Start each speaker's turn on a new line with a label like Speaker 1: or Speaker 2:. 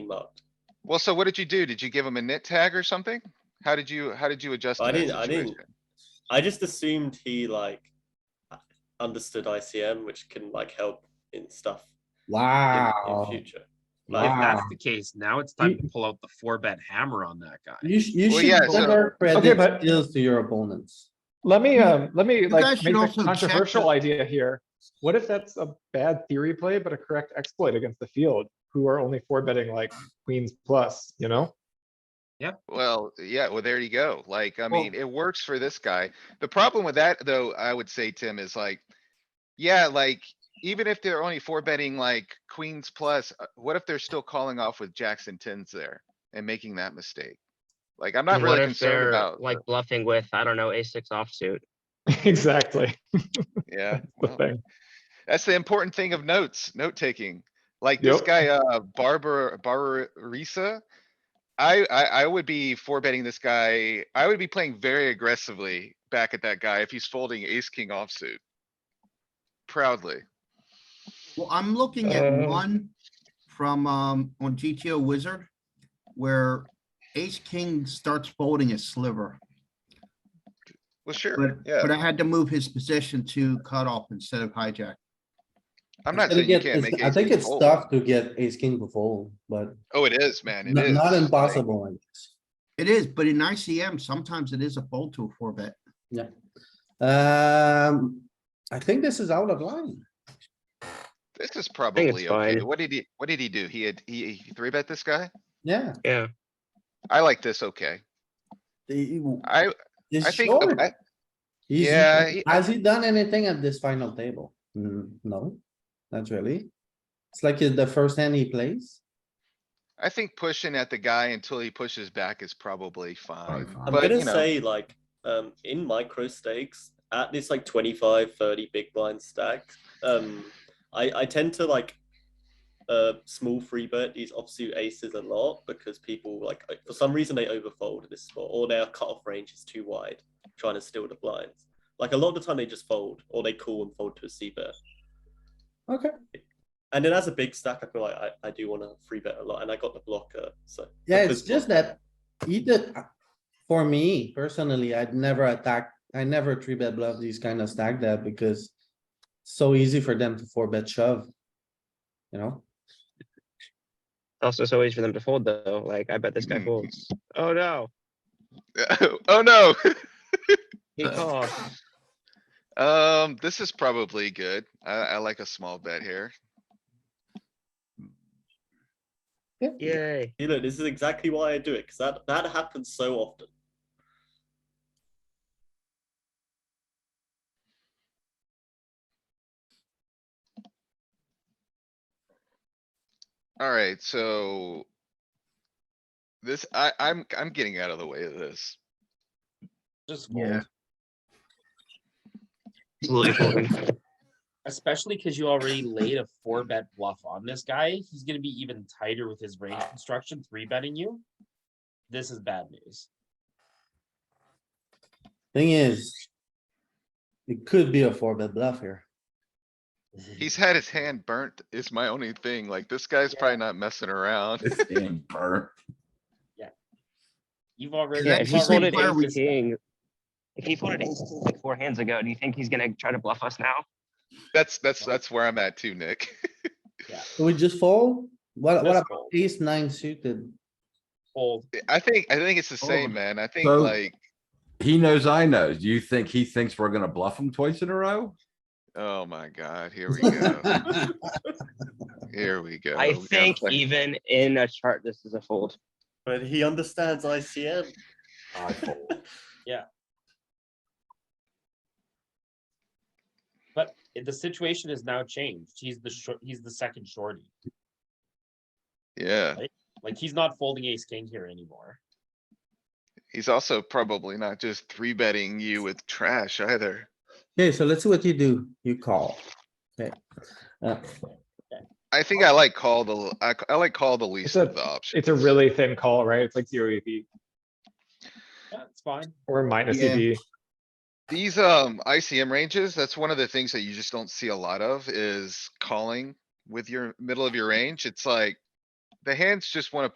Speaker 1: loved.
Speaker 2: Well, so what did you do? Did you give him a nit tag or something? How did you, how did you adjust? to
Speaker 1: I
Speaker 2: that
Speaker 1: didn't- I didn't.
Speaker 2: situation?
Speaker 1: I just assumed he like understood ICM, which can like help in stuff in, in
Speaker 3: Wow.
Speaker 1: future.
Speaker 4: Well, If that's
Speaker 3: Wow.
Speaker 4: the case, now it's time to pull out the four bet hammer on that guy.
Speaker 3: You, sh- you
Speaker 2: Well, yeah,
Speaker 3: should
Speaker 2: so-
Speaker 3: never
Speaker 5: Okay, but-
Speaker 3: credit deals to your opponents.
Speaker 5: Let me, um, let me
Speaker 6: you guys
Speaker 5: like
Speaker 6: should
Speaker 5: make
Speaker 6: also
Speaker 5: a
Speaker 6: check
Speaker 5: controversial
Speaker 6: the-
Speaker 5: idea here. What if that's a bad theory play, but a correct exploit against the field, who are only four betting like queens plus, you know?
Speaker 2: Well, yeah, well, there you go. Like, I
Speaker 5: Well-
Speaker 2: mean, it works for this guy. The problem with that, though, I would say, Tim, is like, yeah, like, even if they're only four betting like queens plus, uh, what if they're still calling off with jacks and tens there and making that mistake? Like, I'm not
Speaker 7: And what
Speaker 2: really
Speaker 7: if
Speaker 2: concerned
Speaker 7: they're,
Speaker 2: about,
Speaker 7: Like bluffing with, I don't know, a six offsuit.
Speaker 5: Exactly,
Speaker 2: yeah.
Speaker 5: the
Speaker 2: well,
Speaker 5: thing.
Speaker 2: That's the important thing of notes, note taking. Like this
Speaker 5: Yep.
Speaker 2: guy, uh, Barbara, Barbarisa. I, I, I would be four betting this guy. I would be playing very aggressively back at that guy if he's folding ace, king offsuit. Proudly.
Speaker 6: Well, I'm looking at
Speaker 5: Uh,
Speaker 6: one from, um, on GTO Wizard, where ace king starts folding a sliver.
Speaker 2: Well, sure,
Speaker 6: But,
Speaker 2: yeah.
Speaker 6: but I had to move his position to cutoff instead of hijack.
Speaker 2: I'm not
Speaker 3: It's gonna
Speaker 2: saying you
Speaker 3: get-
Speaker 2: can't
Speaker 3: it's-
Speaker 2: make.
Speaker 3: I
Speaker 2: ace
Speaker 3: think
Speaker 2: king
Speaker 3: it's
Speaker 2: fold.
Speaker 3: tough to get ace king to fold, but
Speaker 2: Oh, it is, man. It
Speaker 3: not
Speaker 2: is.
Speaker 3: not
Speaker 2: Like,
Speaker 3: impossible. I guess.
Speaker 6: It is, but in ICM, sometimes it is a fold to a four bet.
Speaker 3: Um, I think this is out of line.
Speaker 2: This is probably okay.
Speaker 7: fine.
Speaker 2: What did he, what did he do? He had, he, he three bet this guy?
Speaker 3: Yeah.
Speaker 7: Yeah.
Speaker 2: I like this, okay.
Speaker 3: the-
Speaker 2: I,
Speaker 3: he's
Speaker 2: I think,
Speaker 3: short.
Speaker 2: I-
Speaker 3: He's-
Speaker 2: yeah, he-
Speaker 3: Has he done anything at this final table? Hmm, no, not really. It's like uh, the first hand he plays.
Speaker 2: I think pushing at the guy until he pushes back is probably fine.
Speaker 1: I'm
Speaker 2: But,
Speaker 1: gonna
Speaker 2: you know.
Speaker 1: say like um in micro stakes at this like 25 30 big blind stack um I I tend to like uh small free bet these offsuit aces a lot because people like uh, for some reason they overfold at this spot or their cutoff range is too wide trying to steal the blinds. Like a lot of the time they just fold or they call and fold to a C bet.
Speaker 3: Okay.
Speaker 1: And then as a big stack I feel like I, I do want to free bet a lot and I got the blocker so
Speaker 3: Yeah,
Speaker 1: because-
Speaker 3: it's just that he did, for me personally, I'd never attack, I never three bet bluff these kind of stack that because it's so easy for them to four bet shove. You know,
Speaker 7: Also, so easy for them to fold though. Like, I bet this guy
Speaker 2: Hmm.
Speaker 7: folds. Oh, no.
Speaker 2: Oh, no.
Speaker 7: He called.
Speaker 2: Um, this is probably good. I, I like a small bet here.
Speaker 7: Yay.
Speaker 1: You know, this is exactly why I do it because that that happens so often.
Speaker 2: Alright, so. This, I, I'm, I'm getting out of the way of this.
Speaker 8: Just
Speaker 6: Yeah.
Speaker 8: fold,
Speaker 7: Absolutely folding.
Speaker 8: especially because you already laid a four bet bluff on this guy. He's gonna be even tighter with his range construction, three betting you. This is bad news.
Speaker 3: thing is, it could be a four bet bluff here.
Speaker 2: He's had his hand burnt is my only thing. Like, this guy's probably not messing around.
Speaker 5: It's being burnt.
Speaker 8: You've already.
Speaker 7: Yeah,
Speaker 6: Yeah,
Speaker 7: if
Speaker 8: you've
Speaker 7: he
Speaker 6: he's
Speaker 8: already
Speaker 7: folded
Speaker 8: laid
Speaker 6: required we-
Speaker 7: ace
Speaker 8: this guy.
Speaker 7: king, if he folded ace king like four hands ago, do you think he's gonna try to bluff us now?
Speaker 2: That's, that's, that's where I'm at too, Nick.
Speaker 3: So we just fold? What, what
Speaker 8: Just
Speaker 3: about
Speaker 8: fold.
Speaker 3: ace nine suited?
Speaker 8: Fold.
Speaker 2: I think, I think it's the
Speaker 6: Oh,
Speaker 2: same, man. I think
Speaker 9: so-
Speaker 2: like,
Speaker 9: He knows I know. Do you think he thinks we're gonna bluff him twice in a row?
Speaker 2: oh my god, here we go. Here we go.
Speaker 7: I
Speaker 2: We gotta
Speaker 7: think
Speaker 2: play-
Speaker 7: even in a chart, this is a fold.
Speaker 1: But he understands ICM.
Speaker 8: I fold. Yeah. But i- the situation has now changed. He's the short, he's the second shorty.
Speaker 2: Yeah,
Speaker 8: Like, he's not folding ace king here anymore.
Speaker 2: he's also probably not just three betting you with trash either.
Speaker 3: Okay, so let's see what you do. You call. Okay. Uh,
Speaker 2: I think I like call the, I, I like call the least
Speaker 5: a-
Speaker 2: of the options.
Speaker 5: It's a really thin call, right? It's like zero EV
Speaker 8: Yeah, it's fine.
Speaker 5: or minus E
Speaker 6: Yeah.
Speaker 5: EV.
Speaker 2: These, um, ICM ranges, that's one of the things that you just don't see a lot of is calling with your middle of your range. It's like, the hands just wanna